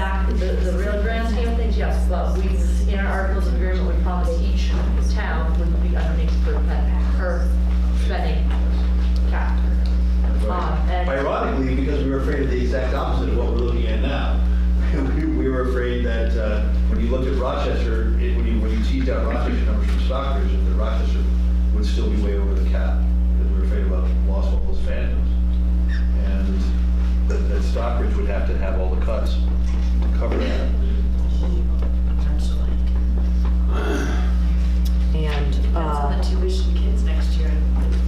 the real grand scheme of things, yes, but we, in our articles of agreement, we promised each town would be underneath per pet, per spending cap. Um, and- Ironically, because we were afraid of the exact opposite of what we're looking at now. We- We were afraid that uh, when you looked at Rochester, it- when you, when you teased out Rochester numbers from Stockbridge, that Rochester would still be way over the cap, because we were afraid about lost all those fandoms. And that- that Stockbridge would have to have all the cuts to cover that. And, on the uh, tuition kids next year, it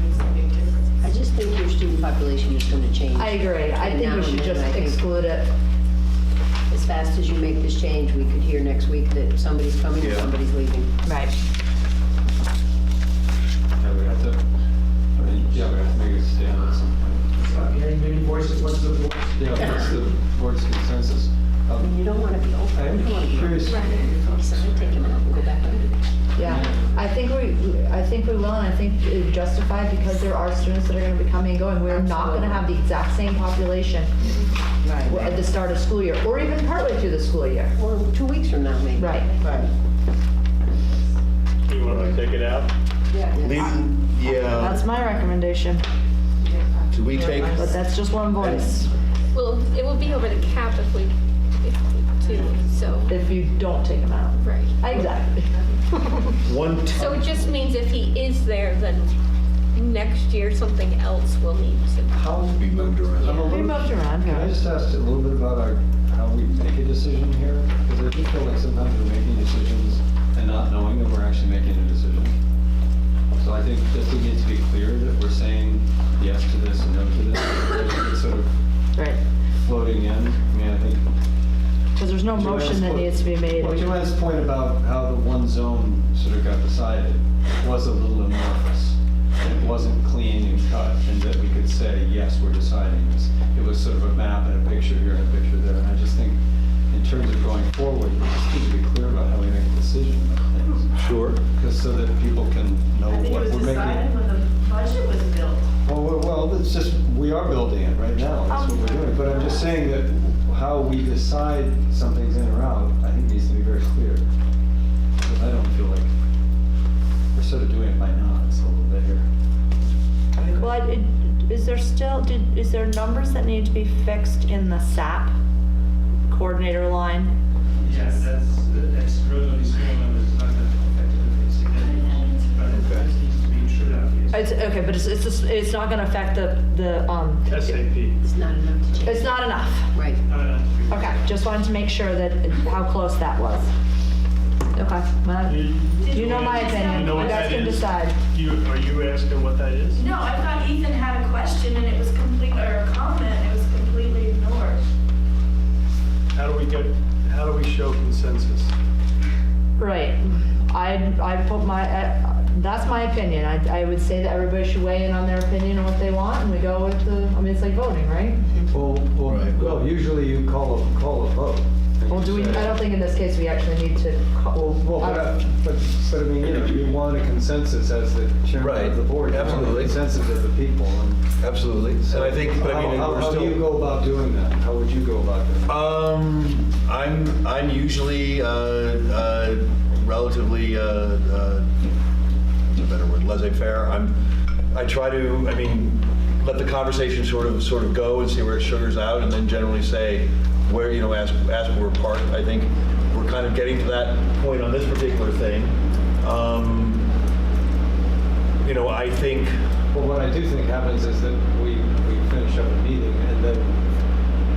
makes a big difference. I just think your student population is going to change. I agree, I think we should just exclude it. As fast as you make this change, we could hear next week that somebody's coming and Yeah. somebody's leaving. Right. Yeah, we have to, I mean, yeah, we have to make a stand at some point. I'm hearing many voices, what's the voice? You know, that's the board's consensus. I mean, Um, You don't want to be over. I am curious, So we take them out and go back under. Yeah, I think we, I think we will, and I think it's justified because there are students that are gonna be coming and going. We're not gonna have the exact same population w- at the start of school year, or even partway through the school year. Or two weeks from now, maybe. Right. Right. You want to take it out? Yeah, That's my recommendation, do we take, but that's just one voice, Well, it will be over the cap if we, if we do, so, if you don't take them out. right. Exactly. one, t- So it just means if he is there, then next year, something else will need to. how, be moved around. I'm a We little, moved around, can I yeah. just ask a little bit about our, how we make a decision here? Because I do feel like sometimes we're making decisions and not knowing that we're actually making a decision. So I think just it needs to be clear that we're saying yes to this and no to this. It's sort of right, floating in. I mean, I think because there's no motion that needs to be made. Well, Joanne's point about how the one zone sort of got decided was a little amorphous. and It wasn't clean and cut, and that we could say, yes, we're deciding this. It was sort of a map and a picture here and a picture there, and I just think, in terms of going forward, we just need to be clear about how we make a decision about things. Sure. Because so that people can know I think it Oh, what was we're decided making. when the budget was built. Well, Well, well, it's just, we are building it right now, that's what we're doing. But I'm just saying that how we decide something's in or out, I think needs to be very clear. Because I don't feel like, we're sort of doing it by nods a little bit here. Well, I- it- is there still, did, is there numbers that need to be fixed in the SAP coordinator line? Yes, that's, that's relatively small and it's not that effective, it's significant, but it just needs to be insured out, yes. It's, okay, but it's, it's, just- it's not gonna affect the, the, um, SAP. It's not enough to change. it's not enough. Right. No, no, no. Okay, just wanted to make sure that, how close that was. Okay, well, you know my opinion, know you what that guys can is? decide. You, are you asking what that is? No, I thought Ethan had a question and it was complete, or a comment, and it was completely ignored. How do we get, how do we show consensus? Right, I, I put my, uh, that's my opinion, I, I would say that everybody should weigh in on their opinion on what they want, and we go with the, I mean, it's like voting, right? Well, well, Right. well, usually you call a, call a vote. and Well, you do we, say- I don't think in this case we actually need to Well, call. well, but, I- but, but I mean, you know, you want a consensus as the chairman Right, of the board. you want a absolutely. Consensus of the people. and- Absolutely, and I think, but I mean, How- how- we're How still. do you go about doing that? How would you go about doing that? Um, I'm I'm usually uh, uh, relatively uh, uh, what's a better word laissez-faire. I'm I try to I mean let the conversation sort of sort of go and see where it sugars out, and then generally say where you know ask ask where we're part. I think we're kind of getting to that point on this particular thing. Um, you know, I think. Well, what I do think happens is that we, we finish up a meeting and then,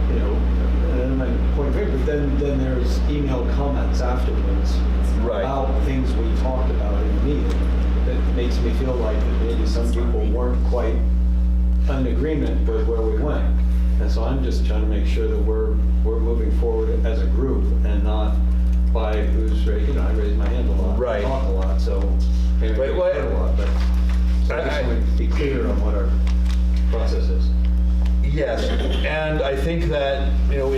you know, and then my point of view, but then, then there's email comments afterwards Right. about things we talked about in the meeting. That makes me feel like that maybe some people weren't quite in agreement with where we went. And so I'm just trying to make sure that we're, we're moving forward as a group and not by who's, ra- you know, I raise my hand a lot. I Right. Talk a lot, so maybe I Right, get well, hurt a lot, but. I just want to be clear on what our process is. Yes, and I think that, you know,